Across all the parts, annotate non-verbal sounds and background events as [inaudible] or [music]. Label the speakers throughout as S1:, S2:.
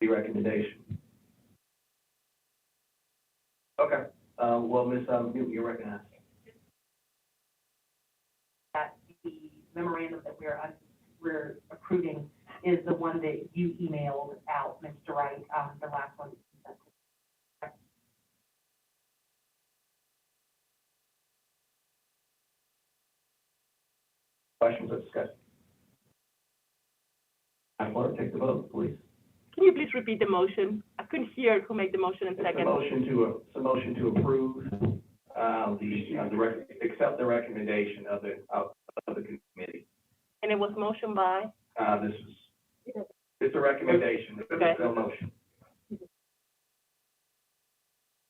S1: the recommendation. Okay, uh, well, Ms. um, Newton, you're recognized.
S2: that the memorandum that we're, uh, we're approving is the one that you emailed out, Mr. Wright, um, the last one.
S1: Questions or discussion? Madam Clerk, take the vote, please.
S3: Can you please repeat the motion? I couldn't hear who made the motion and
S1: It's a
S3: second.
S1: motion to, a- it's a motion to approve, uh, the, uh, the, rec- accept the recommendation of the, of, of the committee.
S3: And it was motion by,
S1: Uh, this is, it's a recommendation,
S3: Okay.
S1: it's no motion.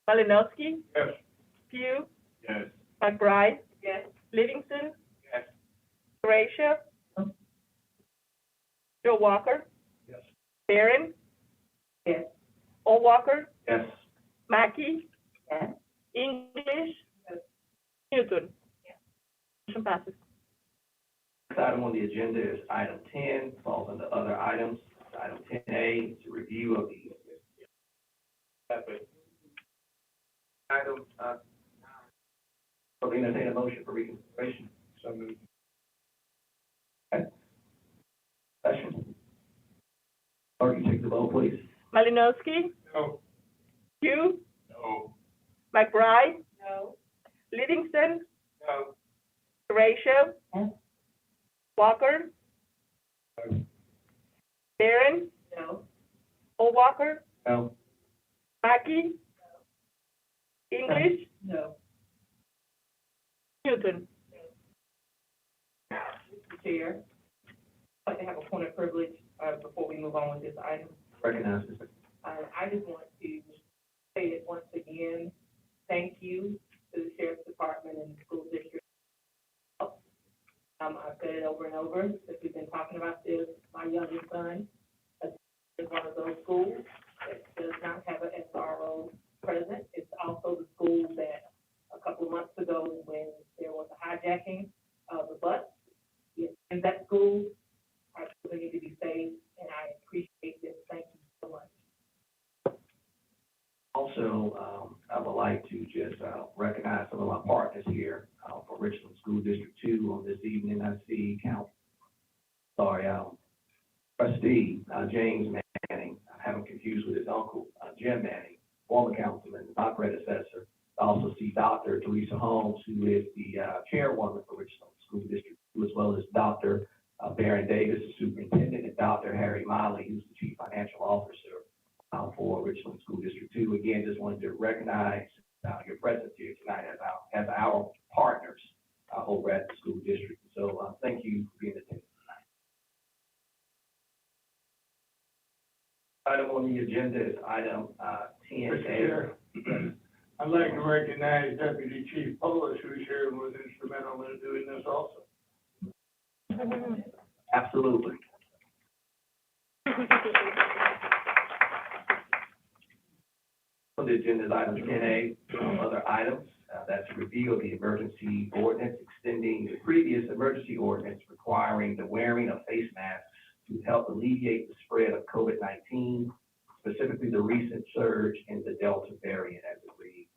S3: Malinowski,
S1: Yes.
S3: Pugh,
S1: Yes.
S3: McBride. Yes. Livingston.
S1: Yes.
S3: Gracia. Joe Walker,
S1: Yes.
S3: Barron.
S2: Yes.
S3: Paul Walker,
S1: Yes.
S3: Mackey.
S2: Yes.
S3: English. Newton. Motion passes.
S1: Next item on the agenda is item ten, falls under other items. Item ten A is a review of the. Item, uh, so entertain a motion for reconsideration. So moved. Okay. Discussion. Clerk, you take the vote, please.
S3: Malinowski,
S1: No.
S3: Pugh,
S1: No.
S3: McBride,
S2: No.
S3: Livingston,
S1: No.
S3: Ratio.
S2: Yes.
S3: Walker.
S1: Yes.
S3: Barron,
S2: No.
S3: Paul Walker,
S1: No.
S3: Mackey. English,
S2: No.
S3: Newton.
S2: Chair, I'd like to have a point of privilege, uh, before we move on with this item.
S1: Recognize this.
S2: Uh, I just want to say it once again, thank you to the sheriff's department and the school district. Um, I've said it over and over, since we've been talking about this, my youngest son is one of those schools that does not have an SRO present. It's also the school that a couple of months ago, when there was a hijacking of the bus, in that school, our children need to be safe, and I appreciate this, thank you so much.
S1: Also, um, I would like to just, uh, recognize some of my partners here, uh, for Richland School District Two on this evening. I see Count, sorry, um, trustee, uh, James Manning, I have him confused with his uncle, uh, Jim Manning, former councilman, my predecessor. I also see Dr. Teresa Holmes, who is the, uh, chairwoman for Richland School District Two, as well as Dr. uh, Baron Davis, the superintendent, and Dr. Harry Miley, who's the chief financial officer uh, for Richland School District Two. Again, just wanted to recognize, uh, your presence here tonight as our, as our partners, uh, over at the school district. So, uh, thank you for being attended tonight. Item on the agenda is item, uh, ten
S4: Mr. Chair, I'd like to recognize Deputy Chief Polis, who's here and was instrumental in doing this also.
S1: Absolutely. On the agenda is item ten A, um, other items, uh, that's review of the emergency ordinance extending the previous emergency ordinance requiring the wearing of face masks to help alleviate the spread of COVID nineteen, specifically the recent surge in the Delta variant as it reads.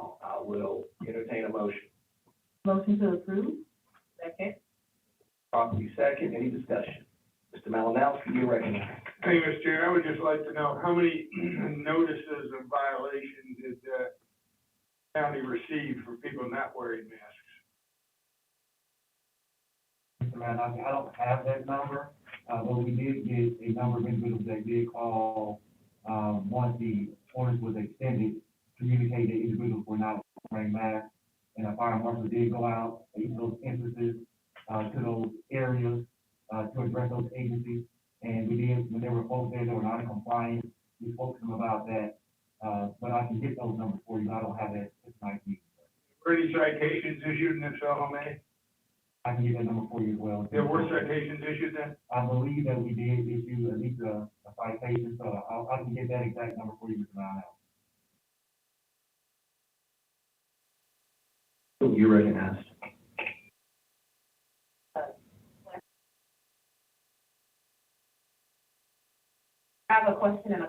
S1: Uh, I will entertain a motion,
S2: Motion to approve? Second?
S1: properly second, any discussion? Mr. Malinowski, you recognize.
S4: Thank you, Mr. Chair. I would just like to know how many [clears throat] notices of violation did the county receive for people not wearing masks?
S5: Man, I, I don't have that number, uh, but we did get a number of individuals that did call, um, once the orders was extended, communicate that individuals were not wearing masks, and a fire marshal did go out, in those instances, uh, to those areas, uh, to address those agencies, and we did, when there were folks there that were not in compliance, we spoke to them about that, uh, but I can get those numbers for you, I don't have that tonight,
S4: Were any citations issued, and if so, how many?
S5: I can get that number for you as well.
S4: There were citations issued then?
S5: I believe that we did issue at least a, a citation, so I, I can get that exact number for you, Mr. Brown.
S1: You recognized.
S2: I have a question and a